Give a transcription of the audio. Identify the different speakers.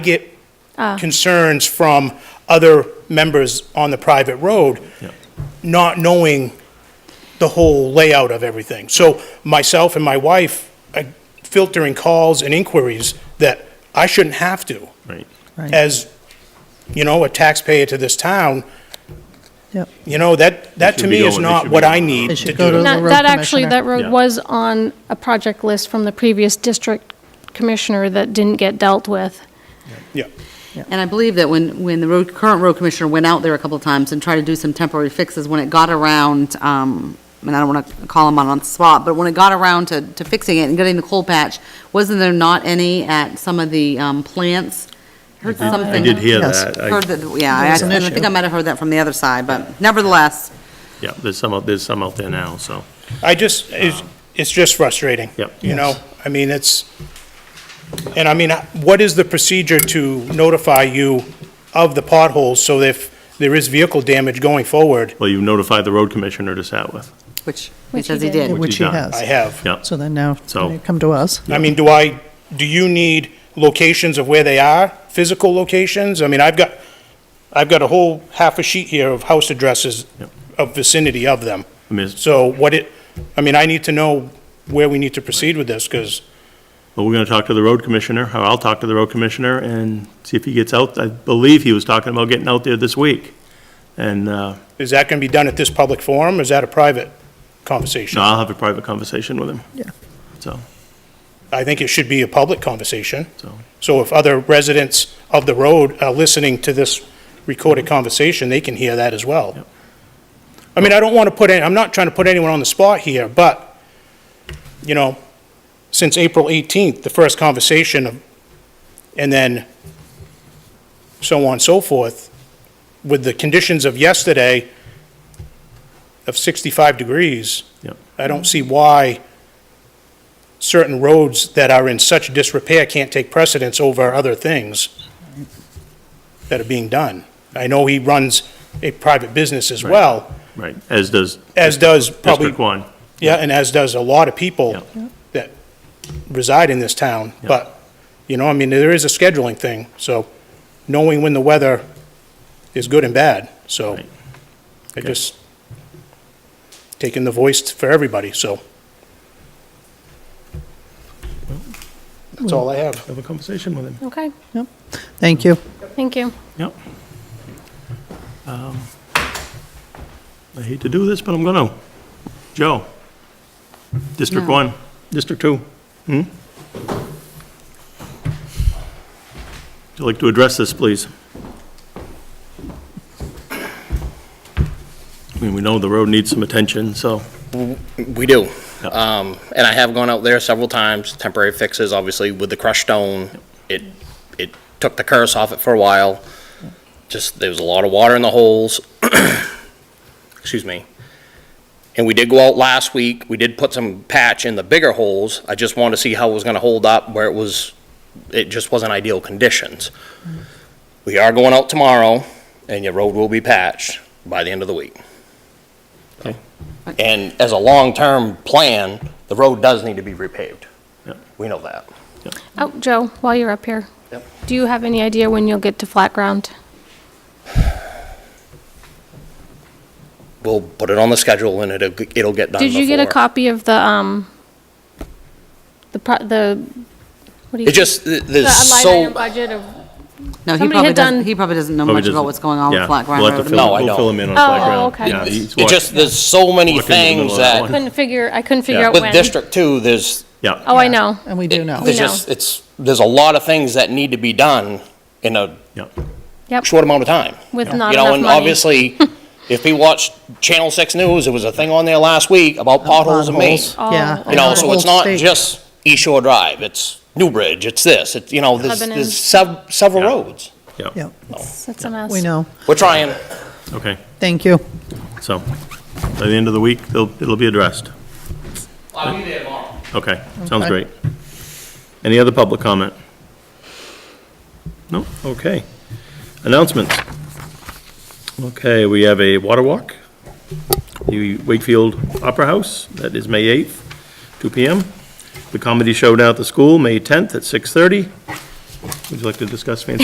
Speaker 1: get
Speaker 2: Ah.
Speaker 1: concerns from other members on the private road, not knowing the whole layout of everything. So myself and my wife are filtering calls and inquiries that I shouldn't have to.
Speaker 3: Right.
Speaker 1: As, you know, a taxpayer to this town,
Speaker 2: Yep.
Speaker 1: you know, that, that to
Speaker 3: should be
Speaker 1: me is
Speaker 3: going- they
Speaker 1: not
Speaker 3: should
Speaker 1: what
Speaker 3: be
Speaker 1: I
Speaker 3: going.
Speaker 1: need
Speaker 2: They
Speaker 1: to
Speaker 2: should go
Speaker 1: do.
Speaker 2: to-
Speaker 4: Not-
Speaker 2: road
Speaker 4: That actually, that
Speaker 2: commissioner.
Speaker 3: Yeah.
Speaker 4: road was on a project list from the previous district commissioner that didn't get dealt with.
Speaker 1: Yeah.
Speaker 5: And I believe that when, when the road, current road commissioner went out there a couple of times and tried to do some temporary fixes, when it got around, um, and I don't want to call him out on the spot, but when it got around to, to fixing it and getting the coal patch, wasn't there not any at some of the, um, plants? Heard
Speaker 3: I
Speaker 5: something.
Speaker 3: did hear
Speaker 2: Yes.
Speaker 3: that.
Speaker 5: Heard
Speaker 3: I-
Speaker 5: that, yeah, I,
Speaker 2: There was an
Speaker 5: and I think
Speaker 2: issue.
Speaker 5: I might have heard that from the other side, but nevertheless,
Speaker 3: Yeah, there's some, out- there's some out there now, so,
Speaker 1: I just, it's, it's just frustrating.
Speaker 3: Um, Yep.
Speaker 1: You know, I mean, it's, and I mean, what is the procedure to notify you of the potholes so that if there is vehicle damage going forward?
Speaker 3: well, you notified the road commissioner to sat with.
Speaker 5: which he
Speaker 4: Which he
Speaker 5: says he
Speaker 4: did.
Speaker 5: did.
Speaker 2: Which he
Speaker 3: done.
Speaker 1: I
Speaker 2: has.
Speaker 1: have.
Speaker 3: Yeah,
Speaker 2: So then now,
Speaker 3: So-
Speaker 2: they come to us.
Speaker 1: I mean, do I, do you need locations of where they are, physical locations? I mean, I've got, I've got a whole half a sheet here of house addresses
Speaker 3: Yep.
Speaker 1: of vicinity of them.
Speaker 3: I mean, it's-
Speaker 1: So what it, I mean, I need to know where we need to proceed with this, because
Speaker 3: but we're gonna talk to the road commissioner, or I'll talk to the road commissioner and see if he gets out. I believe he was talking about getting out there this week. And, uh,
Speaker 1: Is that going to be done at this public forum, or is that a private
Speaker 3: no,
Speaker 1: conversation?
Speaker 3: I'll have a private conversation with him.
Speaker 2: Yeah.
Speaker 3: So,
Speaker 1: I think it should be a public conversation.
Speaker 3: so,
Speaker 1: So if other residents of the road are listening to this recorded conversation, they can hear that as well.
Speaker 3: Yep.
Speaker 1: I mean, I don't want to put, any- I'm not trying to put anyone on the spot here, but, you know, since April 18th, the first conversation, of- and then so on and so forth, with the conditions of yesterday of 65 degrees,
Speaker 3: Yep.
Speaker 1: I don't see why certain roads that are in such disrepair can't take precedence over other things that are being done. I know he runs a private business as
Speaker 3: Right.
Speaker 1: well,
Speaker 3: right, as does
Speaker 1: as does probably,
Speaker 3: District One.
Speaker 1: yeah, and as does a lot of people
Speaker 3: Yeah.
Speaker 1: that reside in this town.
Speaker 3: Yeah.
Speaker 1: But, you know, I mean, there is a scheduling thing, so knowing when the weather is good and bad, so
Speaker 3: Right.
Speaker 1: I
Speaker 3: Okay.
Speaker 1: just taking the voice for everybody, so. That's all I have.
Speaker 3: Have a conversation with him.
Speaker 4: Okay,
Speaker 2: Thank you.
Speaker 4: thank you.
Speaker 3: Yep. Um, I hate to do this, but I'm gonna. Joe? District
Speaker 5: No.
Speaker 3: one, district two? Hmm? Would you like to address this, please? I mean, we know the road needs some attention, so,
Speaker 6: We do.
Speaker 3: Yeah.
Speaker 6: Um, and I have gone out there several times, temporary fixes, obviously, with the crushed stone. It, it took the curse off it for a while. Just, there was a lot of water in the holes. Excuse me. And we did go out last week. We did put some patch in the bigger holes. I just wanted to see how it was gonna hold up where it was, it just wasn't ideal conditions. We are going out tomorrow and your road will be patched by the end of the week. And as a long-term plan, the road does need to be repaved.
Speaker 3: Yep.
Speaker 6: We know that.
Speaker 4: Oh, Joe, while you're up here.
Speaker 6: Yep.
Speaker 4: Do you have any idea when you'll get to flat ground?
Speaker 6: We'll put it on the schedule and it'll, it'll get done
Speaker 4: Did you get a
Speaker 6: before-
Speaker 4: copy of the, um, the, pro- the, what do you?
Speaker 6: It just, th-
Speaker 4: The
Speaker 6: there's
Speaker 4: line item
Speaker 6: so,
Speaker 4: budget of,
Speaker 5: No, he
Speaker 4: Somebody
Speaker 5: probably
Speaker 4: had done-
Speaker 5: doesn't, he probably doesn't know
Speaker 3: Probably
Speaker 5: much about
Speaker 3: doesn't-
Speaker 5: what's going on
Speaker 3: Yeah,
Speaker 5: with Flat Ground
Speaker 3: we'll have to
Speaker 5: Road.
Speaker 3: fill-
Speaker 6: No, I
Speaker 3: We'll fill
Speaker 6: don't.
Speaker 3: him in on
Speaker 4: Oh,
Speaker 3: Flat Ground.
Speaker 4: okay.
Speaker 3: Yeah, he's
Speaker 6: it
Speaker 3: walked-
Speaker 6: just, there's so many
Speaker 3: Walk into the middle
Speaker 6: things
Speaker 3: of that
Speaker 6: that,
Speaker 3: one.
Speaker 4: couldn't figure, I couldn't figure
Speaker 3: Yeah.
Speaker 4: out when.
Speaker 6: with District Two, there's,
Speaker 3: Yeah,
Speaker 4: Oh, I know.
Speaker 2: And we do know.
Speaker 6: there's
Speaker 4: know.
Speaker 6: just, it's, there's a lot of things that need to be done in a
Speaker 3: yeah,
Speaker 4: Yep,
Speaker 6: short amount of time.
Speaker 4: with
Speaker 6: You
Speaker 4: not enough money.
Speaker 6: know, and obviously, if you watch Channel Six News, there was a thing on there last week about potholes in Maine.
Speaker 2: Potholes. Yeah.
Speaker 4: Oh,
Speaker 6: You know,
Speaker 2: and the
Speaker 6: so
Speaker 2: whole
Speaker 6: it's not
Speaker 2: state.
Speaker 6: just East Shore Drive, it's Newbridge, it's this, it's, you know, there's,
Speaker 4: Lebanon.
Speaker 6: there's sev- several
Speaker 3: Yeah.
Speaker 6: roads.
Speaker 3: yeah,
Speaker 2: Yeah,
Speaker 4: That's a mess.
Speaker 2: we know.
Speaker 6: We're trying.
Speaker 3: okay.
Speaker 2: Thank you.
Speaker 3: So, by the end of the week, they'll, it'll be addressed.
Speaker 6: I'll be there tomorrow.
Speaker 3: Okay, sounds
Speaker 2: Okay.
Speaker 3: great. Any other public comment? No, okay. Announcements. Okay, we have a water walk, the Wakefield Opera House, that is May 8th, 2 PM. The comedy showdown at the school, May 10th at 6:30. Would you like to discuss Fantasy